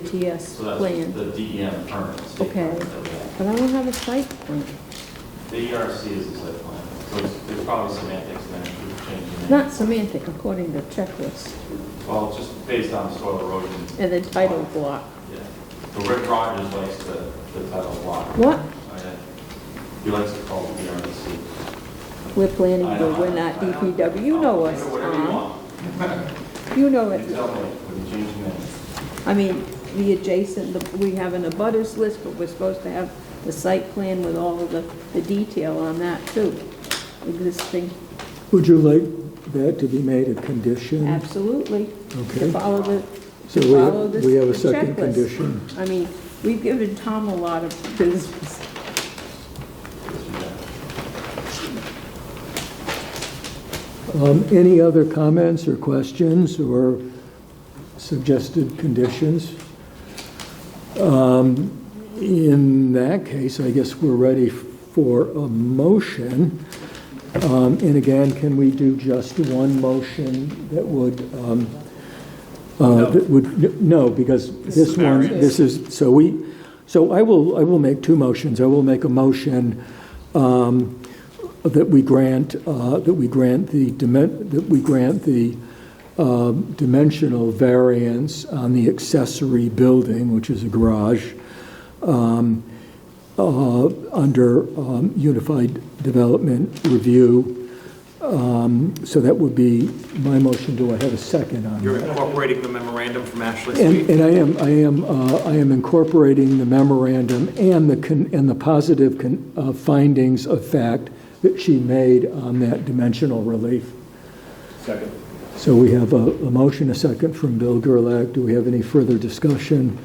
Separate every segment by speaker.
Speaker 1: OWTS
Speaker 2: So
Speaker 1: plan.
Speaker 2: that's the E DEM permit. state
Speaker 1: Okay.
Speaker 2: permit that we have.
Speaker 1: But I don't have a site plan.
Speaker 2: The ERC is the site plan, so it's- there's probably semantics in there, we've changed the name.
Speaker 1: Not semantic, according to checklist,
Speaker 2: Well, it's just based on soil erosion.
Speaker 1: and the title block.
Speaker 2: Yeah. So Rick Rogers likes the, the title block.
Speaker 1: What?
Speaker 2: I had- He likes to call it ERC.
Speaker 1: We're planning,
Speaker 2: I
Speaker 1: but
Speaker 2: don't-
Speaker 1: we're not
Speaker 2: I don't-
Speaker 1: DPW, E you know
Speaker 2: I'll
Speaker 1: us,
Speaker 2: do Whatever you
Speaker 1: Tom.
Speaker 2: want,
Speaker 1: You know
Speaker 2: you
Speaker 1: it.
Speaker 2: tell me, we can change the name.
Speaker 1: I mean, the adjacent, the- we have an abutters list, but we're supposed to have the site plan with all of the, the detail on that too. Existing,
Speaker 3: Would you like that to be made a condition?
Speaker 1: absolutely, to
Speaker 3: Mm. Okay.
Speaker 1: follow the,
Speaker 3: So
Speaker 1: to
Speaker 3: we
Speaker 1: follow
Speaker 3: have,
Speaker 1: this
Speaker 3: we have a
Speaker 1: the checklist.
Speaker 3: second condition.
Speaker 1: I mean, we've given Tom a lot of business.
Speaker 3: Um, Any other comments or questions or suggested conditions? Um, In that case, I guess we're ready for a motion. Um, And again, can we do just one motion that would, um, uh, that would, no, because this one, this is, so we, so I will, I will make two motions. I will make a motion um, that we grant, uh, that we grant the, dimen- that we grant the um, dimensional variance on the accessory building, which is a garage, um, uh, under um, Unified Development Review. Um, So that would be my motion. Do I have a second on that?
Speaker 4: You're incorporating the memorandum from Ashley
Speaker 3: And,
Speaker 4: Street.
Speaker 3: and I am, I am, uh, I am incorporating the memorandum and the, con- and the positive con- uh, findings of fact that she made on that dimensional relief.
Speaker 4: Second.
Speaker 3: So we have a, a motion, a second from Bill Gerlach. Do we have any further discussion?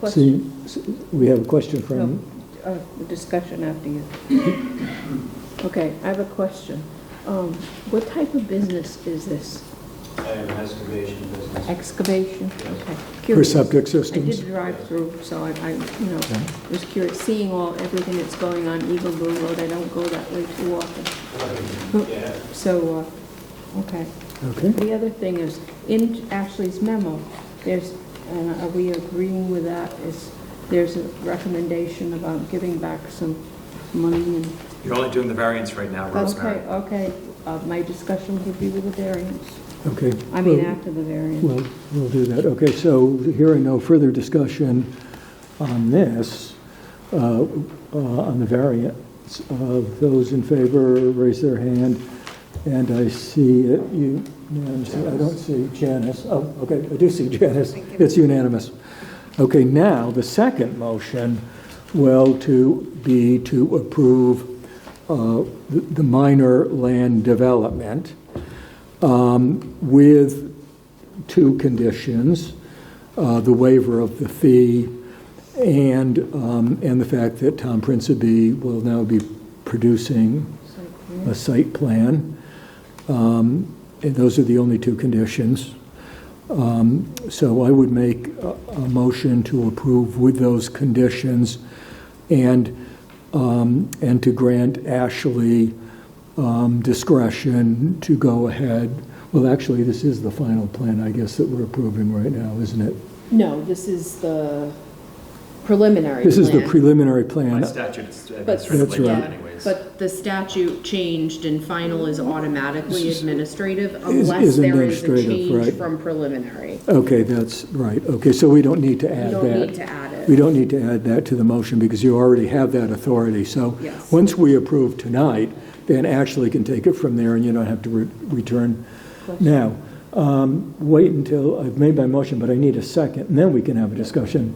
Speaker 1: Question,
Speaker 3: See, we have a question
Speaker 1: no,
Speaker 3: from,
Speaker 1: uh, discussion after you. Okay, I have a question. Um, What type of business is this?
Speaker 5: I have an excavation business.
Speaker 1: Excavation? Okay,
Speaker 3: for
Speaker 1: curious.
Speaker 3: septic
Speaker 1: I did
Speaker 3: systems.
Speaker 1: drive through, so I, I, you know, was curious, seeing all, everything that's going on Eagle Blue Road, I don't go that way too often.
Speaker 5: Yeah,
Speaker 1: So, uh, okay.
Speaker 3: Okay,
Speaker 1: The other thing is, in Ashley's memo, there's, and are we agreeing with that, is, there's a recommendation about giving back some money and...
Speaker 4: You're only doing the variance right now,
Speaker 1: Okay,
Speaker 4: Rosemary.
Speaker 1: okay, uh, my discussion would be with the variance,
Speaker 3: okay.
Speaker 1: I mean, after the variance.
Speaker 3: We'll, we'll do that. Okay, so hearing no further discussion on this, uh, uh, on the variance, uh, those in favor, raise their hand. And I see it unanimous. I don't see Janice. Oh, okay, I do see Janice. It's unanimous. Okay, now, the second motion will to be to approve uh, the the minor land development um, with two conditions, uh, the waiver of the fee and, um, and the fact that Tom Principe will now be producing a site plan. Um, And those are the only two conditions. Um, So I would make a, a motion to approve with those conditions and, um, and to grant Ashley um, discretion to go ahead. Well, actually, this is the final plan, I guess, that we're approving right now, isn't it?
Speaker 6: No, this is the preliminary
Speaker 3: This is the
Speaker 6: plan.
Speaker 3: preliminary
Speaker 4: By
Speaker 3: plan.
Speaker 4: statute, uh, it's administratively
Speaker 3: That's
Speaker 4: done
Speaker 3: right.
Speaker 4: anyways.
Speaker 6: But the statute changed and final is automatically administrative
Speaker 3: is
Speaker 6: unless there is a
Speaker 3: administrative, right.
Speaker 6: change from preliminary.
Speaker 3: Okay, that's right. Okay, so we don't need to
Speaker 6: You
Speaker 3: add that.
Speaker 6: don't need to add
Speaker 3: We
Speaker 6: it.
Speaker 3: don't need to add that to the motion because you already have that authority. So
Speaker 6: Yes.
Speaker 3: once we approve tonight, then Ashley can take it from there and you don't have to re- return. Now, um, wait until, I've made my motion, but I need a second, and then we can have a discussion.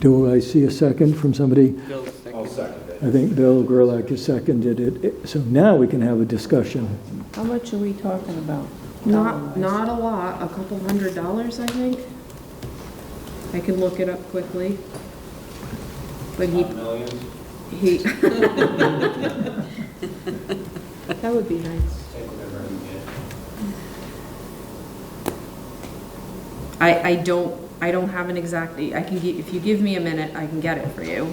Speaker 3: Do I see a second from somebody?
Speaker 5: I'll second it.
Speaker 3: I think Bill Gerlach has seconded it. it. So now we can have a discussion.
Speaker 1: How much are we talking about?
Speaker 6: Not, not a lot, a couple hundred dollars, I think. I can look it up quickly. But he,
Speaker 2: Not millions,
Speaker 6: he,
Speaker 1: That would be nice.
Speaker 5: Take whatever you get.
Speaker 6: I, I don't, I don't have an exact, I can, gi- if you give me a minute, I can get it for you.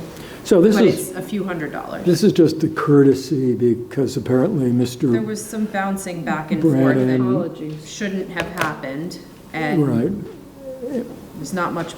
Speaker 3: So this
Speaker 6: But
Speaker 3: is,
Speaker 6: it's a few hundred dollars.
Speaker 3: this is just a courtesy because apparently
Speaker 6: There
Speaker 3: Mr.
Speaker 6: was some bouncing back and
Speaker 3: Brad
Speaker 6: forth that
Speaker 3: and-
Speaker 1: Apologies.
Speaker 6: shouldn't have happened, and
Speaker 3: Right,
Speaker 6: There's not much